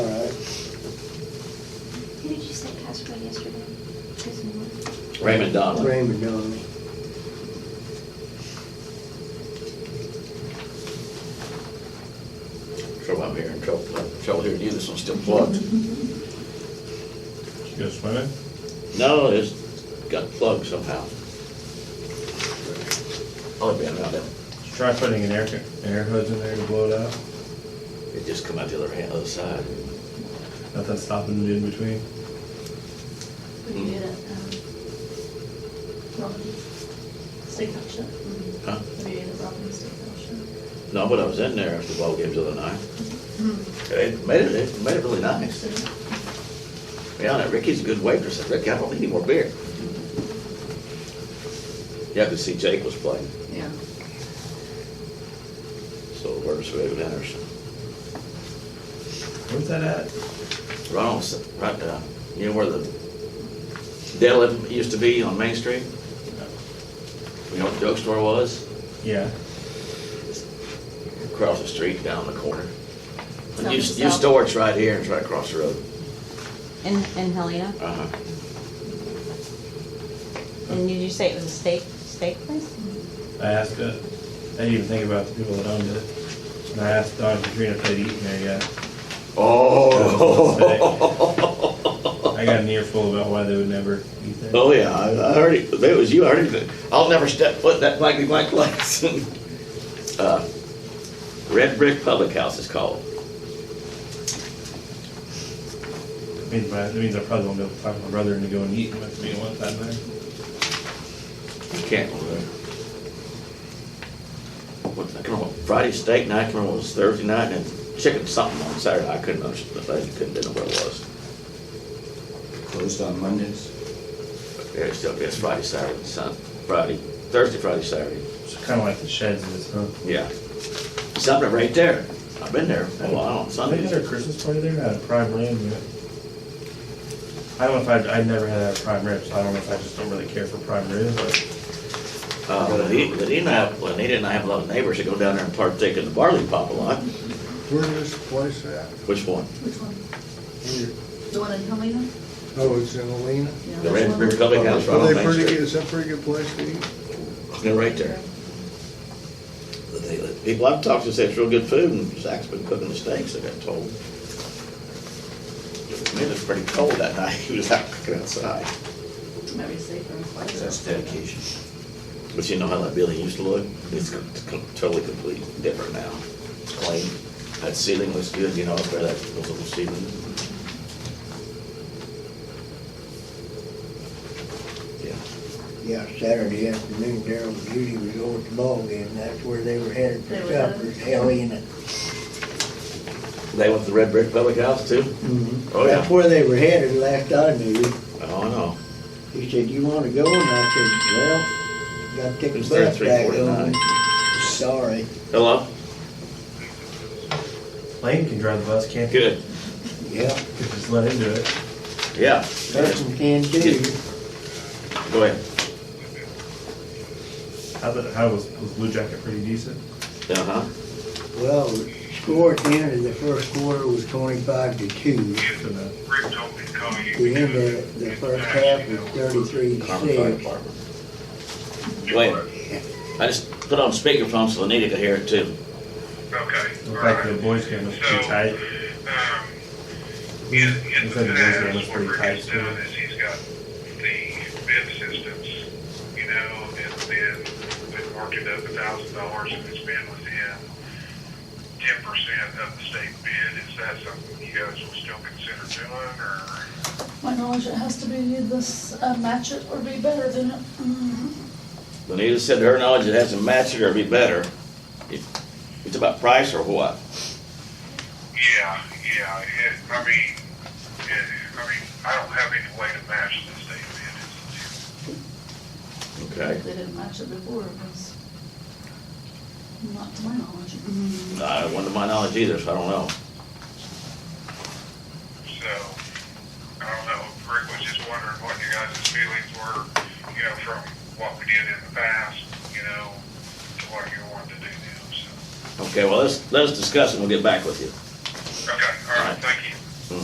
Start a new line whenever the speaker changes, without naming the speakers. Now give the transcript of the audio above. State passed away yesterday. His name was-
Raymond Donlin.
Raymond Donley.
Trouble I'm hearing, trouble, trouble hearing you, this one's still plugged.
You gonna swim it?
No, it's got plugged somehow. I'll be around it.
Should Try putting an air, an air hose in there to blow it out.
It just come out the other hand, other side.
Nothing stopping it in between.
We did it, um, Robin's State Auction.
Huh?
We did it, Robin's State Auction.
No, but I was in there after the ball games the other night.
Mm-hmm.
It made it, it made it really nice. Yeah, and Ricky's a good waitress. I said, Ricky, I don't need any more beer. Yeah, I could see Jake was playing,
Yeah.
so we're just waving at her. so.
Where's that at?
Right on, s- right, uh, you know where the deli used to be on Main Street? You know what the drugstore was?
Yeah.
Across the street, down the corner.
South
You,
to
you
south.
store it's right here, it's right across the road.
In, in Helena?
Uh-huh.
And did you say it was a steak, steak place?
I asked, uh, I didn't even think about the people that owned it. And I asked Don and Katrina if they'd eaten there yet.
Oh.
I got an earful about why they would never eat there.
Oh, yeah, I I heard it, it was you, I heard it, I'll never step foot in that blankety blank place. Uh, Red Brick Public House is called.
Means my, that means I probably won't be able to talk my brother into going eating with me one time there.
You can't go there. What, I can't remember, Friday steak night, I can't remember, it was Thursday night, and then chicken something on Saturday, I couldn't understand, I couldn't remember what it was.
Closed on Mondays.
But Yeah, it's still, it's Friday, Saturday, and Sun, Friday, Thursday, Friday, Saturday,
It's kinda like the sheds is, huh?
yeah. Something right there, I've been there a while on
I think
Sundays.
they had a Christmas party there, had a prime rib. yeah. I don't know if I, I never had a prime rib, so I don't know if I just don't really care for prime rib, but
Uh, but he, but he didn't have, well, he didn't have a lot of neighbors that go down there and partake in the barley pop a lot.
Where is this place at?
Which one?
Which one?
Where-
The one in Helena?
Oh, it's in Alena?
Yeah,
The
there's
Red
one.
Brick Public House right
Are
on
they
Main
pretty good?
Street.
Is that a pretty good place to eat?
They're right there. But they- the People I've talked to say it's real good food, and Zach's been cooking the steaks, I got told. Man, it's pretty cold that night, he was out cooking outside.
Maybe safer.
That's dedication.
But you know how that building used to look? It's co- co- totally completely different now. It's clean. That ceiling looks good, you know, up there, that those little ceiling. Yeah.
Yeah, Saturday afternoon, Daryl and Judy was over at the ball game. That's where they were headed for
They were
supper,
headed.
Helena.
They went to the Red Brick Public House too? Oh, yeah.
That's where they were headed last I knew.
Oh, no.
He said, you wanna go? And I said, well, gotta take
It's
a
there at
bus back
3:49.
home. Sorry.
Hello?
Lane can drive the bus, can't he?
Good.
Yeah,
Just let him do it.
Yeah.
person can do.
Go ahead.
How the, how was, was Blue Jacket pretty decent?
Uh-huh.
Well, the score at the end of the first quarter was twenty-five to two.
For the-
Rick told me to call you.
The end of the first half was thirty-three to
Carmen Fire
six.
Department. Wait, I just put on speakerphone so Anita could hear it too.
Okay.
Looked like the boys game was pretty tight.
Um, in, in
Looks
the
like the boys game was
past, what
pretty
Rick
tight,
has done
too.
is he's got the bid systems, you know, and then they marked it up a thousand dollars and it's been within ten percent of the state bid. Is that something you guys will still consider doing or?
My knowledge, it has to be this, uh, match it or be better than it. Mhm.
Anita said to her knowledge it has to match it or be better. It- It's about price or what?
Yeah, yeah, it, I mean, it, I mean, I don't have any way to match the state bid. It's-
Okay.
If they didn't match it before, it was not to my knowledge. Mm-hmm.
I wasn't to my knowledge either, so I don't know.
So, I don't know, Rick was just wondering what you guys' feelings were, you know, from what we did in the past, you know, to what you wanted to do now, so.
Okay, well, let's, let's discuss and we'll get back with you.